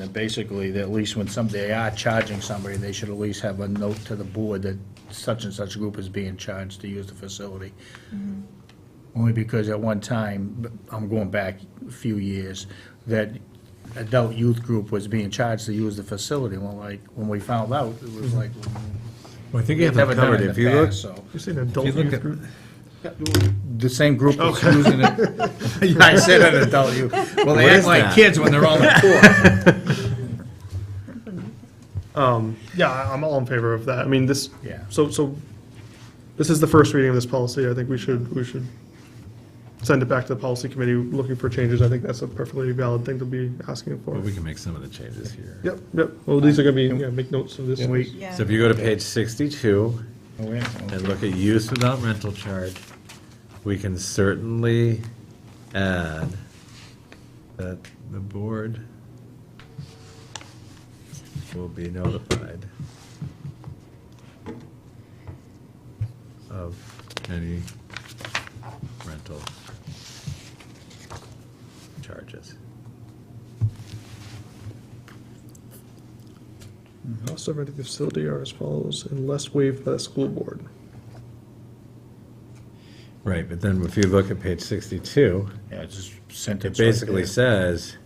And basically, that at least when some, they are charging somebody, they should at least have a note to the board that such and such group is being charged to use the facility. Only because at one time, I'm going back a few years, that adult youth group was being charged to use the facility. Well, like, when we found out, it was like, Well, I think you we've have them never done covered. it in If the you look, past, so. You said adult look youth at- group? The same group was using it. I said an adult youth. Well, they What act is like that? kids when they're on the court. Yeah, I- I'm all in favor of that. I mean, this, Yeah. so, so, this is the first reading of this policy. I think we should, we should send it back to the policy committee looking for changes. I think that's a perfectly valid thing to be asking well, for. we can make some of the changes here. Yep, yep. Well, these are gonna be, yeah, make notes of this. And we- So if you go to page 62 Oh, yeah. and look at use without rental charge, we can certainly add that the board will be notified of any rental charges. Cost of renting the facility are as follows, unless waived by the school board. Right, but then if you look at page 62, Yeah, it's just sentence. It right basically there. says,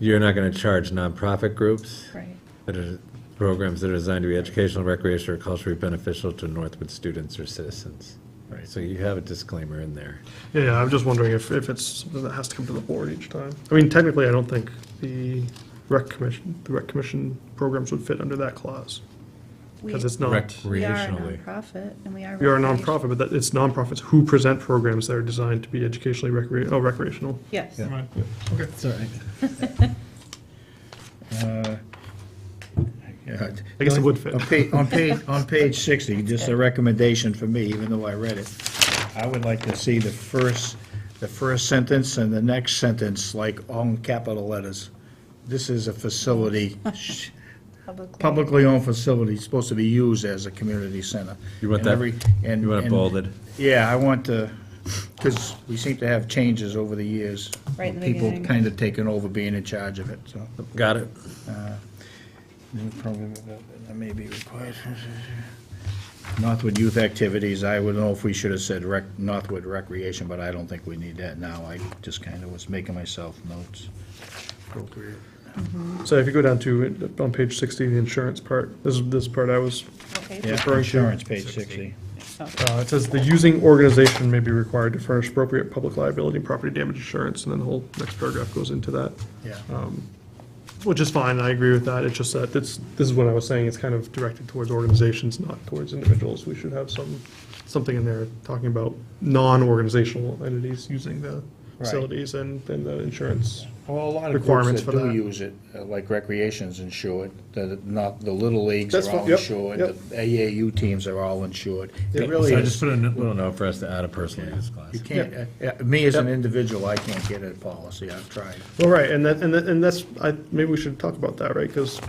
you're not gonna charge nonprofit groups Right. that are, programs that are designed to be educational, recreational, or culturally beneficial to Northwood students or citizens. Right. So you have a disclaimer in there. Yeah, yeah, I'm just wondering if, if it's something that has to come to the board each time. I mean, technically, I don't think the rec commission, the rec commission programs would fit under that clause, We because it's not. we are a Recreationally. nonprofit, and we are. We are a recreation- nonprofit, but that, it's nonprofits who present programs that are designed to be educationally recre, oh, recreational. Yes. Uh, yeah, I guess it would fit. On page, on page, on page sixty, just a recommendation for me, even though I read it, I would like to see the first, the first sentence and the next sentence, like, all in capital letters. This is a facility, sh- Publicly. publicly owned facility, supposed to be used as a community center. You want And that- every- and- you want it and- bolded? Yeah, I want to, because we seem to have changes over the years. Right in the beginning. People kind of taking over being in charge of it, so. Got it? That may be required. Northwood youth activities, I would know if we should have said rec, Northwood recreation, but I don't think we need that now. I just kind of was making myself notes. So if you go down to, uh, on page sixty, the insurance part, this is, this part I was, Okay. Yeah, insurance, page sixty. uh, it says the using organization may be required to furnish appropriate public liability and property damage insurance, and then the whole next paragraph goes into that. Yeah. Which is fine, I agree with that, it's just that, it's, this is what I was saying, it's kind of directed towards organizations, not towards individuals. We should have some, something in there talking about non-organizational entities using the facilities and, and the insurance. Well, a lot of Requirements groups that for do that. use it, uh, like recreation's insured, the, not, the little leagues That's are fine, all yep, insured. yep. The AAU teams are all insured. It really So I just is, put a n- little note for us to add a personal use clause. you can't, uh, uh, me as an individual, I can't get a policy. I've tried. Well, right, and that, and that, and that's, I, maybe we should talk about that, right, because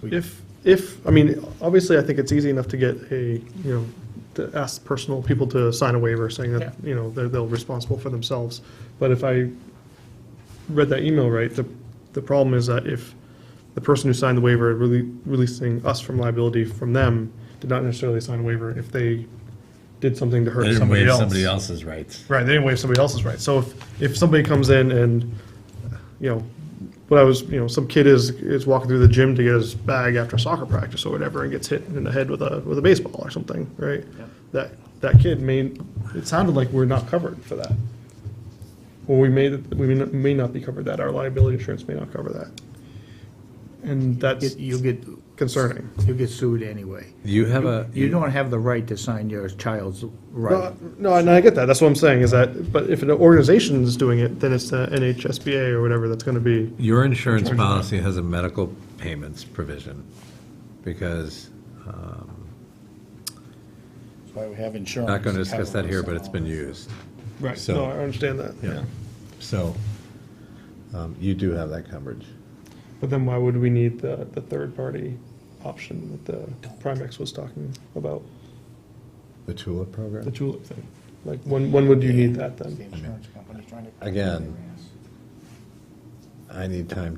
We- if, if, I mean, obviously, I think it's easy enough to get a, you know, to ask personal people to sign a waiver saying Yeah. that, you know, they're, they're responsible for themselves, but if I read that email right, the, the problem is that if the person who signed the waiver really releasing us from liability from them did not necessarily sign a waiver if they did something to They hurt didn't somebody waive else. somebody else's rights. Right, they didn't waive somebody else's right. So if, if somebody comes in and, you know, what I was, you know, some kid is, is walking through the gym to get his bag after soccer practice or whatever and gets hit in the head with a, with a baseball or something, right? That, that kid may, it sounded like we're not covered for that. Or we may, we may not- may not be covered that, our liability insurance may not cover that. And that's Get- You get, concerning. you get sued anyway. You have a, You don't have the right to sign your child's right. No, No, and I get that, that's what I'm saying, is that, but if an organization is doing it, then it's the NHSBA or whatever that's gonna be. Your insurance policy has a medical payments provision, because, That's why we have insurance. not gonna discuss that here, but it's been used. Right, So- no, I understand that, Yeah. yeah. So, um, you do have that coverage. But then why would we need the, the third-party option that the Primex was talking about, The TULIP the program? Julep thing? Like, when, when would you need that then? Again, I need time